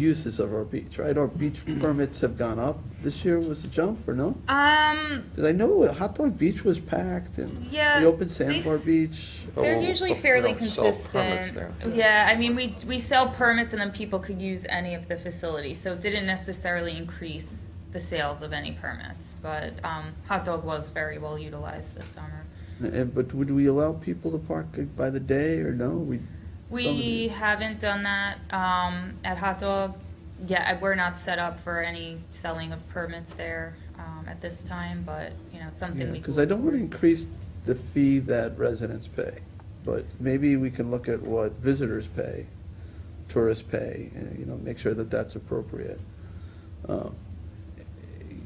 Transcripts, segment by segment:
uses of our beach, right? Our beach permits have gone up. This year was a jump, or no? Um, Because I know Hot Dog Beach was packed, and Yeah, we opened they s- Sandbar Beach. But they're we'll- usually but we fairly don't sell permits consistent. there. Yeah, I mean, we, we sell permits and then people could use any of the facilities, so it didn't necessarily increase the sales of any permits, but, um, hot dog was very well utilized this summer. And, but would we allow people to park by the day, or no? We, some of We these- haven't done that, um, at hot dog yet, I- we're not set up for any selling of permits there, um, at this time, but, you know, it's something we. Because could I look don't want to toward. increase the fee that residents pay, but maybe we can look at what visitors pay, tourists pay, and, you know, make sure that that's appropriate. Um,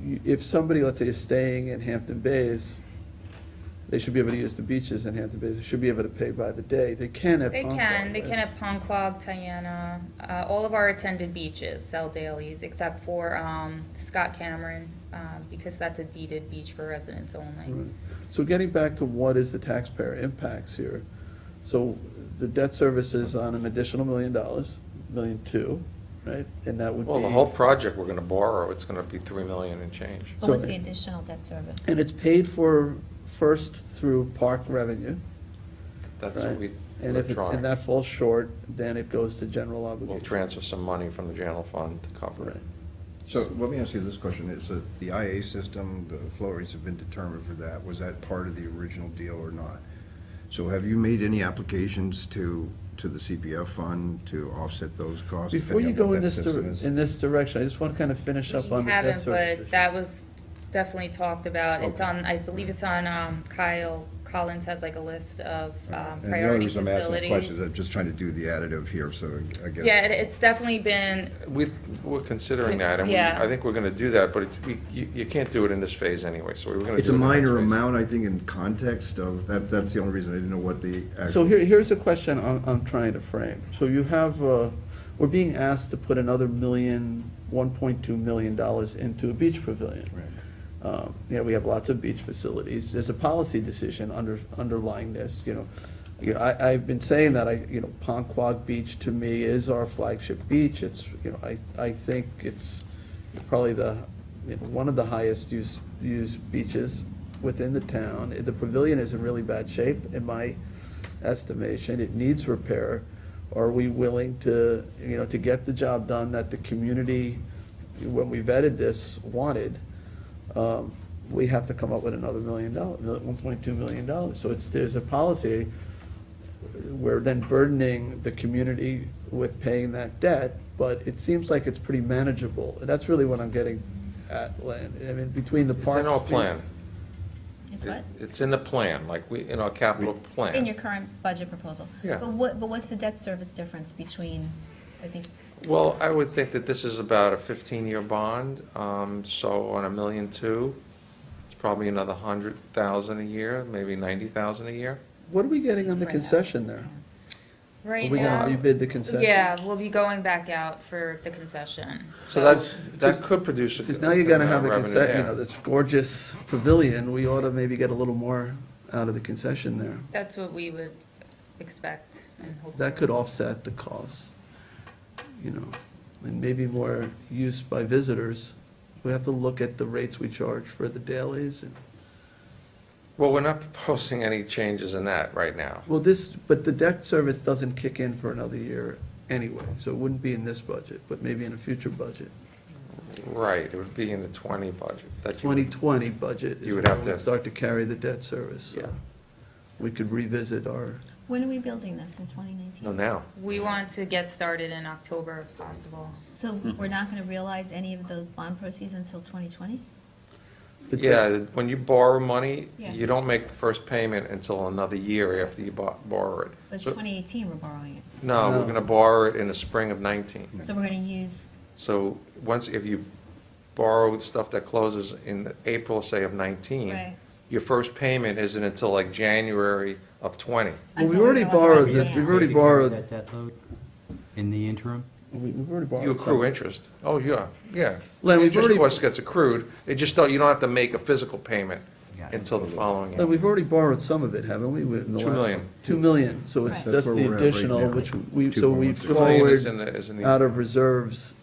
you- If somebody, let's say, is staying in Hampton Bays, they should be able to use the beaches in Hampton Bays, they should be able to pay by the day, they can at They Palm can, Park, they right? can at Ponquag, Tiana, uh, all of our attended beaches sell dailies except for, um, Scott Cameron, uh, because that's a deeded beach for residents only. Right. So getting back to what is the taxpayer impacts here? So the debt service is on an additional million dollars, million two, right? And that would be. Well, the whole project we're gonna borrow, it's gonna be three million and change. So- What was the additional debt service? And it's paid for first through park revenue, That's what right? we, And if, it- and electronic. that falls short, then it goes to general We'll obligation. transfer some money from the general fund to cover it. Right. So let me ask you this question. Is that the IA system, the flow rates have been determined for that. Was that part of the original deal or not? So have you made any applications to, to the CPF fund to offset those costs? Before you depending on go what in that this, dir- system is? in this direction, I just want to kind of finish up on We the debt haven't, service. but issue. that was definitely talked about, it's Okay. on, I believe it's on, um, Kyle Collins has like a list of, um, And the other priority reason I'm asking the question is I'm facilities. just trying to do the additive here, so I get. Yeah, it- it's definitely been, We, we're considering that, and we- Yeah. I think we're gonna do that, but it's, we, you, you can't do it in this phase anyway, so we we're gonna do it. It's a in the next minor phase. amount, I think, in context of, that, that's the only reason I didn't know what the. So actual- here, here's a question I'm, I'm trying to frame. So you have, uh, we're being asked to put another million, one point two million dollars into a beach pavilion. Right. Um, You know, we have lots of beach facilities. There's a policy decision under, underlying this, you know. You know, I, I've been saying that, I, you know, Ponquag Beach to me is our flagship beach. It's, you know, I, I think it's probably the, you know, one of the highest used, used beaches within the town. The pavilion is in really bad shape in my estimation. It needs repair. Are we willing to, you know, to get the job done that the community, when we vetted this, wanted? um, we have to come up with another million dollars, one point two million dollars. So it's, there's a policy, we're then burdening the community with paying that debt, but it seems like it's pretty manageable. And that's really what I'm getting at, Len. I mean, between the It's parks. in our plan. It's It- what? It's in the plan, like we, in our capital plan. In your current budget proposal? Yeah. But what, but what's the debt service difference between, I think, Well, I would think that this is about a 15-year bond, um, so on a million two, it's probably another 100,000 a year, maybe 90,000 a year. What are we getting on the concession there? Are right we now. gonna rebid the concession? Yeah, we'll be going back out for the concession. So that's, that Because- could produce a. Because now you're gonna have a revenue concession, you there. know, this gorgeous pavilion, we ought to maybe get a little more out of the concession there. That's what we would expect and hope. that for. could offset the costs, you know, and maybe more use by visitors. We have to look at the rates we charge for the dailies and, Well, we're not proposing any changes in that right now. well, this, but the debt service doesn't kick in for another year anyway, so it wouldn't be in this budget, but maybe in a future budget. Right, it would be in the 20 budget. that you would- Twenty twenty budget is You would where have we'd to- start to carry the debt service, Yeah. so we could revisit our, when are we building this, in 2019? No, now. We want to get started in October if possible. So Mm-hmm. we're not going to realize any of those bond proceeds until 2020? the debt- Yeah, when you borrow money, Yeah. you don't make the first payment until another year after you bo- borrow it. But it's So- 2018 we're borrowing it. No, No. we're gonna borrow it in the spring of 19. So we're going to use, So once, if you borrow stuff that closes in April, say of 19, Right. your first payment isn't until like January of 20. I Well, we thought we already were borrowed, authorized the- now. we've already Did you carry borrowed, that debt load in the interim? we- we've already borrowed. You some. accrue interest. Oh, yeah, yeah. Len, we've Interest, already- of course, gets accrued. It just, don't. you don't have to make a physical payment Got it. until the following But year. we've already borrowed some of it, haven't we? in the Two last million. one? Two million, so it's Right. just That's where the we're at right additional, now. which we, so we 2.1. Two million is forward in the- is in the- out of reserves